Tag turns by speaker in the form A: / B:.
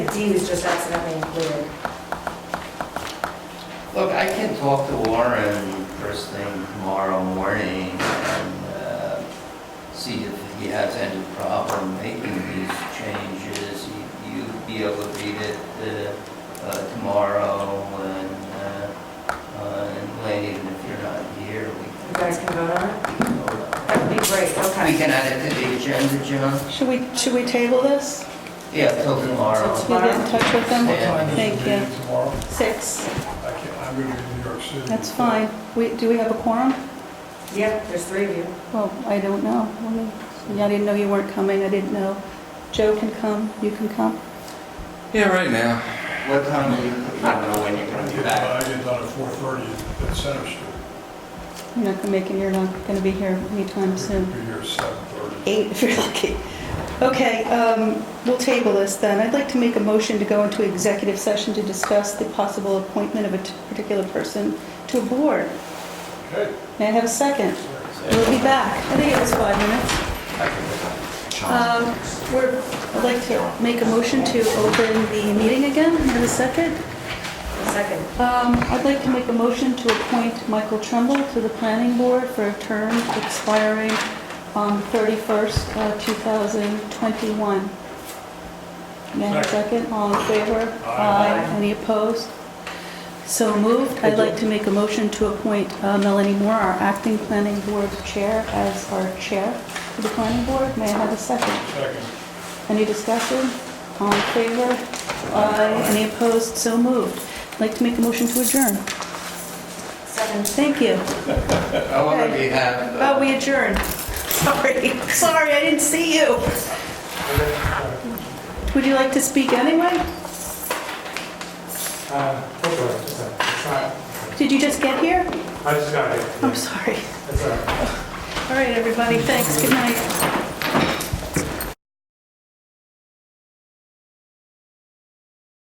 A: D was just accidentally included.
B: Look, I can talk to Warren first thing tomorrow morning and uh, see if he has any problem making these changes. You- You'd be able to read it uh, uh, tomorrow and, uh, uh, and Wayne, if you're not here, we
A: You guys can vote on it?
B: can vote on it.
A: That would be great,
B: We
A: okay.
B: can add it to the agenda, John?
C: Should we, should we table this?
B: Yeah, till tomorrow.
A: Till
C: You get in touch with
B: What
C: them?
B: time
C: Thank you.
D: Tomorrow,
C: Six,
D: I can't, I'm going to be in New York City.
C: that's fine. We, do we have a quorum?
A: Yep, there's three of you.
C: Well, I don't know. Let me- I didn't know you weren't coming, I didn't know. Joe can come, you can come.
E: Yeah, right now.
B: What time are you, I don't know when you're
D: I
B: gonna be
D: get,
B: back.
D: I get done at four thirty at Center Street.
C: You're not gonna make it, you're not gonna be here anytime soon.
D: Be here at seven thirty.
C: Eight, if you're lucky. Okay, um, we'll table this then. I'd like to make a motion to go into executive session to discuss the possible appointment of a t- particular person to a board.
D: Okay.
C: May I have a second? We'll be back. I think it was five minutes. Um, We're, I'd like to make a motion to open the meeting again. May I have a second?
A: Second.
C: Um, I'd like to make a motion to appoint Michael Trumbull to the planning board for a term expiring on 31st, uh, 2021. May I have a second? All in favor?
D: Aye.
C: Any opposed? So moved. I'd like to make a motion to appoint uh, Melanie Moore, our acting planning board chair, as our chair for the planning board. May I have a second?
D: Second.
C: Any discussion? All in favor? Aye. Any opposed? So moved. I'd like to make a motion to adjourn.
A: Second.
C: Thank you.
B: I wanna be happy.
C: Oh, we adjourned. Sorry, sorry, I didn't see you. Would you like to speak anyway?
F: Uh, it's all right, it's all right. It's not-
C: Did you just get here?
F: I just got it.
C: I'm sorry.
F: It's all right.
C: All right, everybody, thanks, good night.